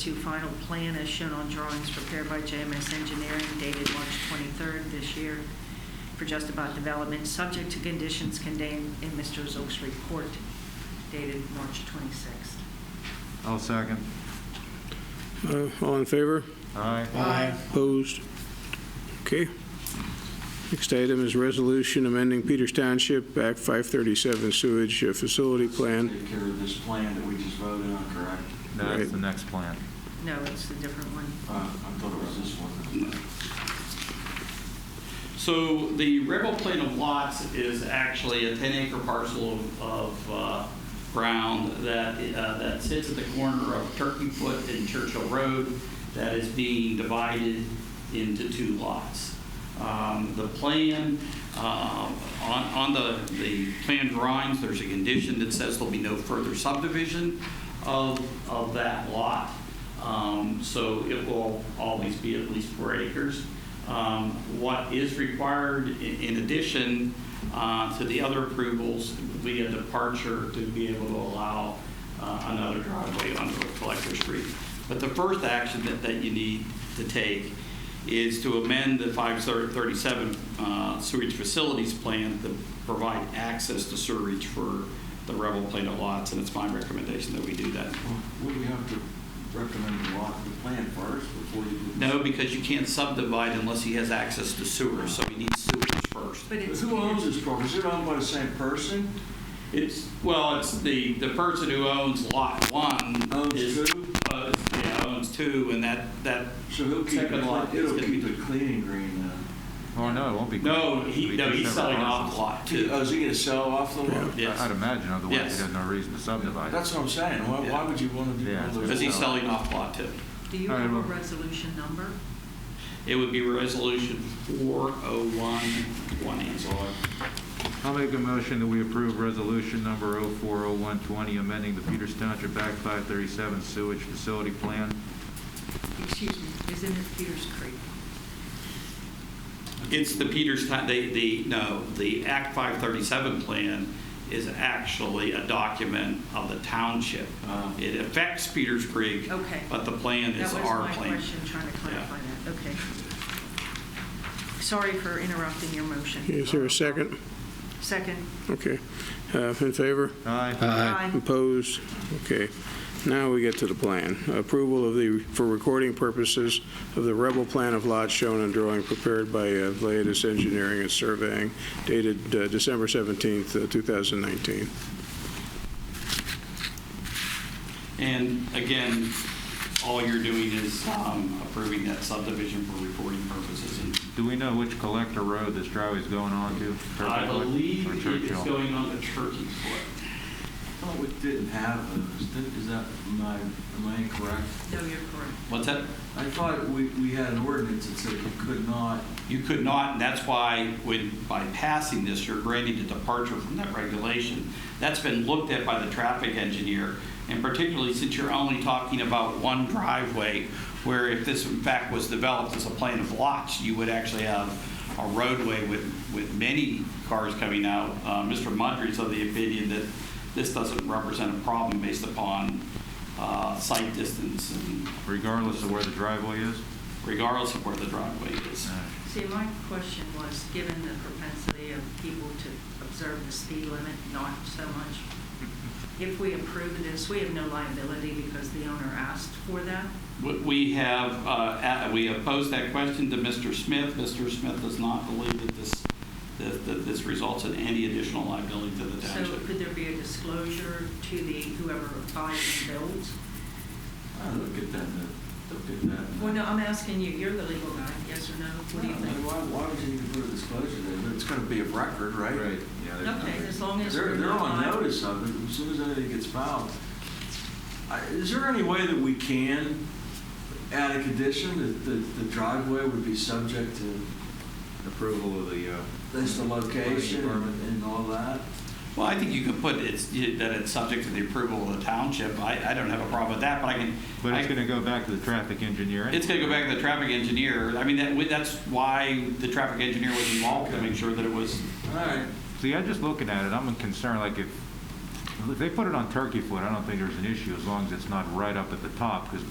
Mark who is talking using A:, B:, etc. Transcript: A: to final plan as shown on drawings prepared by JMS Engineering dated March 23rd this year for Just About Development, subject to conditions contained in Mr. Zook's report dated March 26th.
B: I'll second.
C: Uh, All in favor?
B: Aye.
C: Opposed? Okay. Next item is resolution amending Peters Township Act 537 sewage uh, facility plan.
D: Take care of this plan that we just voted on, correct?
B: No, That's
C: Right.
B: the next plan.
A: No, it's a different one.
D: Uh, I thought it was this one.
E: So the rebel plan of lots is actually a 10 acre parcel of, of uh, ground that, uh, that sits at the corner of Turkey Foot and Churchill Road that is being divided into two lots. Um, The plan, um, on, on the, the plan drawings, there's a condition that says there'll be no further subdivision of, of that lot. Um, So it will always be at least four acres. Um, What is required i- in addition uh, to the other approvals would be a departure to be able to allow uh, another driveway onto Collector Street. But the first action that, that you need to take is to amend the 537 uh, sewage facilities plan to provide access to sewerage for the Rebel Plan of lots, and it's my recommendation that we do that.
D: Would we have to recommend the lot, the plan first before you do?
E: No, because you can't subdivide unless he has access to sewer, so we need sewage first.
A: But it's
D: Who owns this property? Is it owned by the same person?
E: It's, well, it's the, the person who owns lot one.
D: Owns
E: is-
D: two?
E: owns- Yeah, owns two, and that, that,
D: So he'll keep,
E: Second lot
D: it-
E: is
D: it'll
E: gonna be-
D: keep it clean and green uh, then?
B: Oh, no, it won't be.
E: no,
B: It'll
E: he,
B: be
E: no,
B: two
E: he's
B: separate
E: selling off
B: parcels.
E: lot two.
D: Oh, is he gonna sell off the lot?
E: Yes.
B: I- I'd imagine, otherwise
E: Yes.
B: he has no reason to subdivide.
D: That's what I'm saying. Why, why would you want to do?
B: Yeah.
D: all those
E: Because he's
D: lots?
E: selling off lot two.
A: Do you
B: All right,
A: have a
B: well-
A: resolution number?
E: It would be resolution 4011.
B: I'll make a motion that we approve resolution number 040120, amending the Peters Township Act 537 sewage facility plan.
A: Excuse me, isn't it Peters Creek?
E: It's the Peters, Town- they, the, no, the Act 537 plan is actually a document of the township.
D: Ah.
E: It affects Peters Creek,
A: Okay.
E: but the plan is our
A: That was my
E: plan.
A: question, trying to clarify that, okay. Sorry for interrupting your motion.
C: Is there a second?
A: Second.
C: Okay. Uh, In favor?
B: Aye.
A: Aye.
C: Opposed? Okay. Now we get to the plan. Approval of the, for recording purposes, of the rebel plan of lots shown and drawing prepared by uh, Vladetis Engineering and Surveying dated uh, December 17th, uh, 2019.
E: And again, all you're doing is um, approving that subdivision for reporting purposes. And
B: Do we know which collector road this driveway's going on to?
E: I
B: Turkey Foot
E: believe
B: or
E: it is
B: Churchill?
E: going on the Turkey Foot.
D: I thought we didn't have those. Did- Is that my, am I incorrect?
A: No, you're correct.
E: What's that?
D: I thought we, we had an ordinance that said you could not
E: You could not, and that's why when, by passing this, you're granting a departure from that regulation. That's been looked at by the traffic engineer, and particularly since you're only talking about one driveway, where if this in fact was developed as a plan of lots, you would actually have a roadway with, with many cars coming out. Uh, Mr. Mudry's of the opinion that this doesn't represent a problem based upon uh, site distance and
B: Regardless of where the driveway is?
E: regardless of where the driveway is.
B: Aye.
A: See, my question was, given the propensity of people to observe the speed limit, not so much, if we approve this, we have no liability because the owner asked for that?
E: We- We have, uh, at- we have posed that question to Mr. Smith. Mr. Smith does not believe that this, that that this results in any additional liability to the
A: So
E: township.
A: could there be a disclosure to the, whoever buys and builds?
D: I don't look at that, no. don't get that.
A: Well, no, I'm asking you, you're the legal guy, yes or no? What do you think?
D: Why, why would you even put a disclosure there? It's gonna be of record, right?
B: Yeah, there's
A: Okay,
B: nothing.
A: as long as
D: They're,
A: we're
D: they're on
A: not-
D: notice of it, as soon as anything gets filed. I- Is there any way that we can add a condition that the, the driveway would be subject to
B: Approval of the, uh,
D: this the location
B: Department.
D: and and all that?
E: Well, I think you can put it's, that it's subject to the approval of the township. I, I don't have a problem with that, but I can.
B: but
E: I-
B: it's going to go back to the traffic engineer.
E: It's going to go back to the traffic engineer. I mean, that, that's why the traffic engineer was involved, to make sure that it was,
D: All right,
B: See, I'm just looking at it, I'm concerned, like if, if they put it on Turkey Foot, I don't think there's an issue as long as it's not right up at the top, because